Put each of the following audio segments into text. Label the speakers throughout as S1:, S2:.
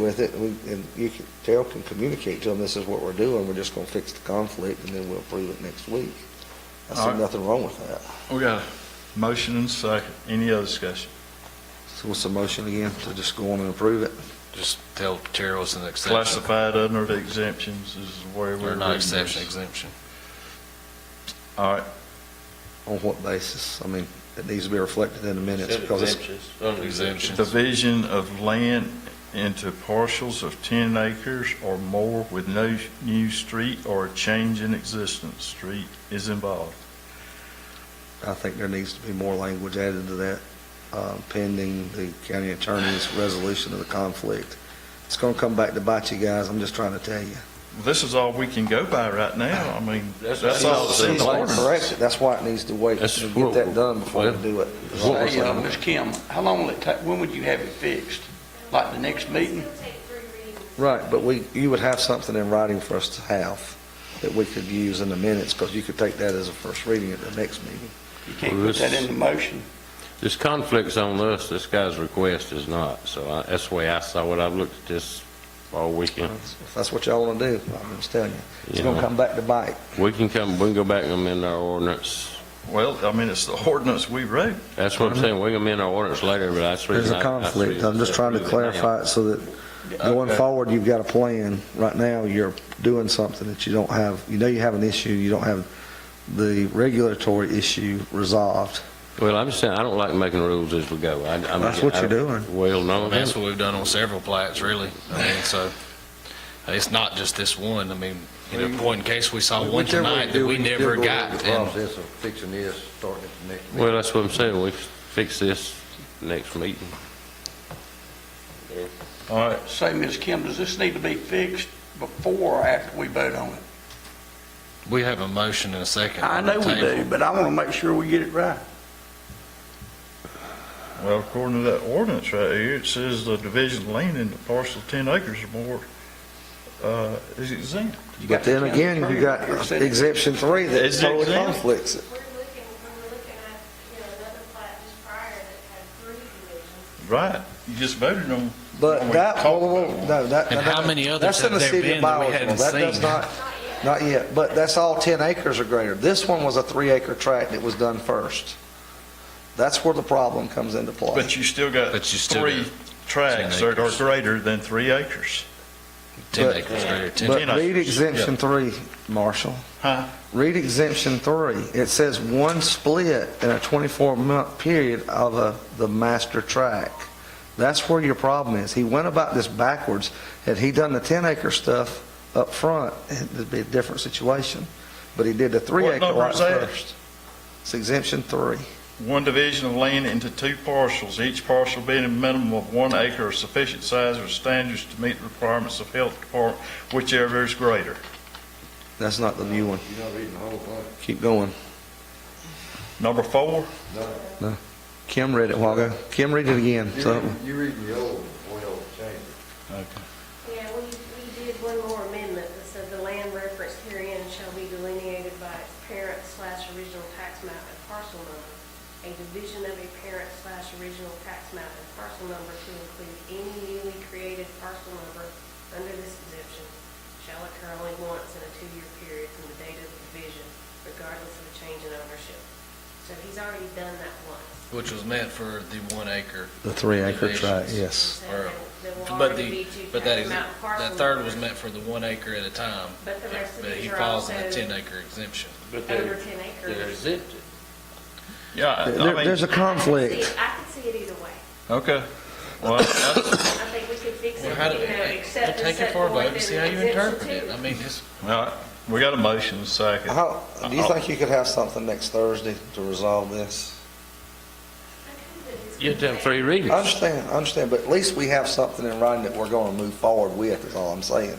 S1: with it, we, and you can, Terrell can communicate to them, this is what we're doing, we're just gonna fix the conflict, and then we'll approve it next week. I
S2: All
S1: see
S2: right.
S1: nothing wrong with that.
S2: We got a motion and second. Any other discussion?
S1: So what's the motion again, to just go on and approve it?
S3: Just tell Terrell it's an exception,
S2: Classified under the exemptions is where we're.
S3: or not
S2: reading
S3: exception,
S2: this.
S3: exemption.
S2: All right,
S1: On what basis? I mean, it needs to be reflected in the minutes, because it's,
S4: Exemptions, under exemptions.
S2: division of land into parcels of ten acres or more with no new street or a change in existence. Street is involved.
S1: I think there needs to be more language added to that, uh, pending the county attorney's resolution of the conflict. It's gonna come back to bite you guys, I'm just trying to tell you.
S2: This is all we can go by right now. I mean,
S4: That's-
S2: that's all that's in
S1: She's
S2: the
S1: gonna
S2: ordinance.
S1: correct it, that's why it needs to wait,
S3: That's
S1: and get
S3: what-
S1: that done before we do it. um,
S3: What was
S5: Hey, uh, Ms. Kim, how long will it take, when would you have it fixed? Like the next meeting?
S6: It'll take three readings.
S1: Right, but we, you would have something in writing for us to have that we could use in the minutes, because you could take that as a first reading at the next meeting.
S5: You can't
S7: Well,
S5: put that
S7: this-
S5: in the motion.
S7: This conflict's on us, this guy's request is not, so I- that's the way I saw it, I've looked at this all weekend.
S1: If that's what y'all want to do, I'm just telling you, it's
S7: You
S1: going to
S7: know.
S1: come back to bite.
S7: We can come, we can go back and amend our ordinance,
S2: Well, I mean, it's the ordinance we wrote.
S7: that's what I'm saying, we can amend our ordinance later, but that's the
S1: There's
S7: reason.
S1: a
S7: I- that's the
S1: conflict,
S7: reason
S1: I'm just
S7: I
S1: trying to
S7: do it
S1: clarify it so that going
S2: Okay.
S1: forward, you've got a plan. Right now, you're doing something that you don't have, you know you have an issue, you don't have the regulatory issue resolved.
S7: now. Well, I'm just saying, I don't like making rules as we go. I- I mean,
S1: That's what you're
S7: I-
S1: doing.
S7: Well,
S3: I
S7: no,
S3: mean, That's what we've done on several plats, really. I mean, so, it's not just this one. I mean, in a point in case, we saw Uh, one tonight that we never got. and-
S8: process of fixing this, starting at the next meeting.
S7: well, that's what I'm saying, we fix this next meeting.
S2: All right,
S5: Say, Ms. Kim, does this need to be fixed before or after we vote on it?
S3: We have a motion and a second.
S5: I
S3: on the
S5: know we
S3: table.
S5: do, but I want to make sure we get it right.
S2: well, according to that ordinance right here, it says the division of land into parcel ten acres or more, uh, is exempt.
S1: But then again, you got exemption three that
S2: Is it
S1: totally
S2: exempt?
S1: conflicts it.
S6: We're looking, we're looking at, you know, another plat just prior that had three divisions.
S2: Right, you just voted on.
S1: But
S2: on
S1: that,
S2: what we
S1: whoa,
S2: talked
S1: whoa, whoa,
S2: about.
S1: no, that.
S3: And
S1: that-
S3: how many others
S1: that's in
S3: have
S1: the
S3: there
S1: city of
S3: been that we
S1: Biological.
S3: hadn't
S1: That does
S3: seen?
S1: not, not yet, but that's all 10 acres or greater. This one was a three acre tract that was done first. That's where the problem comes into play.
S2: But you still got
S3: But you still
S2: three tracks that are
S3: acres.
S2: greater than three acres.
S3: Ten
S1: but-
S3: acres greater, ten.
S1: But
S2: 10
S1: read
S2: acres,
S1: exemption three, Marshall.
S2: Huh?
S1: Read exemption three. It says one split in a 24 month period of a, the master tract. That's where your problem is. He went about this backwards. Had he done the 10 acre stuff up front, it'd be a different situation. But he did the three
S2: What
S1: acre
S2: number
S1: lot
S2: is that?
S1: first. It's exemption three.
S2: One division of land into two parcels, each parcel being a minimum of one acre of sufficient size or standards to meet the requirements of health department, whichever is greater.
S1: That's not the new one.
S8: You're not reading the whole thing.
S1: Keep going.
S2: Number four,
S1: Kim read it a while ago. Kim, read it again.
S8: You're
S1: So,
S8: reading- You're reading the old one, oil change.
S6: Yeah, we, we did one more amendment that said the land referenced herein shall be delineated by its parent slash original tax map and parcel number. A division of a parent slash original tax map and parcel number to include any newly created parcel number under this exemption shall occur only once in a two-year period from the date of the division, regardless of a change in ownership. So he's already done that once.
S3: Which was meant for the one acre.
S1: the three acre tract,
S3: divisions.
S1: yes.
S6: There will
S3: But
S6: already be
S3: the,
S6: two
S3: but that
S6: tax
S3: is,
S6: map and parcel
S3: that third was
S6: numbers.
S3: meant for the one acre at a time.
S6: But the rest of
S3: But
S6: these
S3: he
S6: are
S3: falls in the
S6: also-
S3: ten acre exemption.
S4: But
S6: over
S4: they're,
S6: 10
S4: they're
S6: acres.
S4: exempted.
S2: yeah, I-
S1: There-
S2: I
S1: there's
S2: mean,
S1: a conflict.
S6: I could see it either way.
S2: okay. Well, that's-
S6: I think we could fix it,
S3: Well,
S6: you
S3: how do,
S6: know, except
S3: we'll
S6: and
S3: take it
S6: set
S3: for a vote
S6: forth
S3: and
S6: in
S3: see how you
S6: exemption
S3: interpret it.
S6: two.
S3: I mean, it's,
S2: all right, we got a motion, second.
S1: How, do you
S2: Uh-oh.
S1: think you could have something next Thursday to resolve this?
S7: You have to have three
S1: I
S7: readings.
S1: understand, I understand, but at least we have something in writing that we're going to move forward with, is all I'm saying.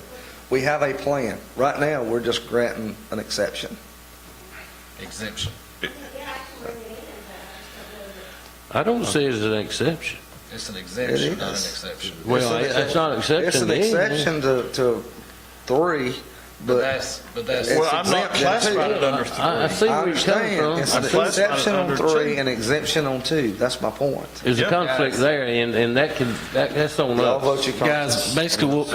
S1: We have a plan. Right now, we're just granting an exception.
S3: exemption.
S6: Yeah, I can bring it in, but
S7: I don't see it as an exception.
S3: It's an exemption, not an
S1: is.
S3: exception.
S7: Well,
S1: It's an-
S7: it's not an exception
S1: It's an
S7: to anything.
S1: exception to, to three,
S3: But
S1: but
S3: that's, but that's.
S1: It's
S2: Well, I'm not
S1: exempt then, too.
S2: classified it under three.
S7: I I see
S1: I
S7: where you're
S1: understand.
S7: coming from.
S1: It's
S7: I
S1: an
S7: see-
S2: class-
S1: exception on
S2: under
S1: three
S2: two.
S1: and exemption on two. That's my point.
S7: There's a
S2: Yeah.
S7: conflict there, and, and that can, that, that's on us.
S1: Y'all vote your conscience.
S3: Guys, basically, what,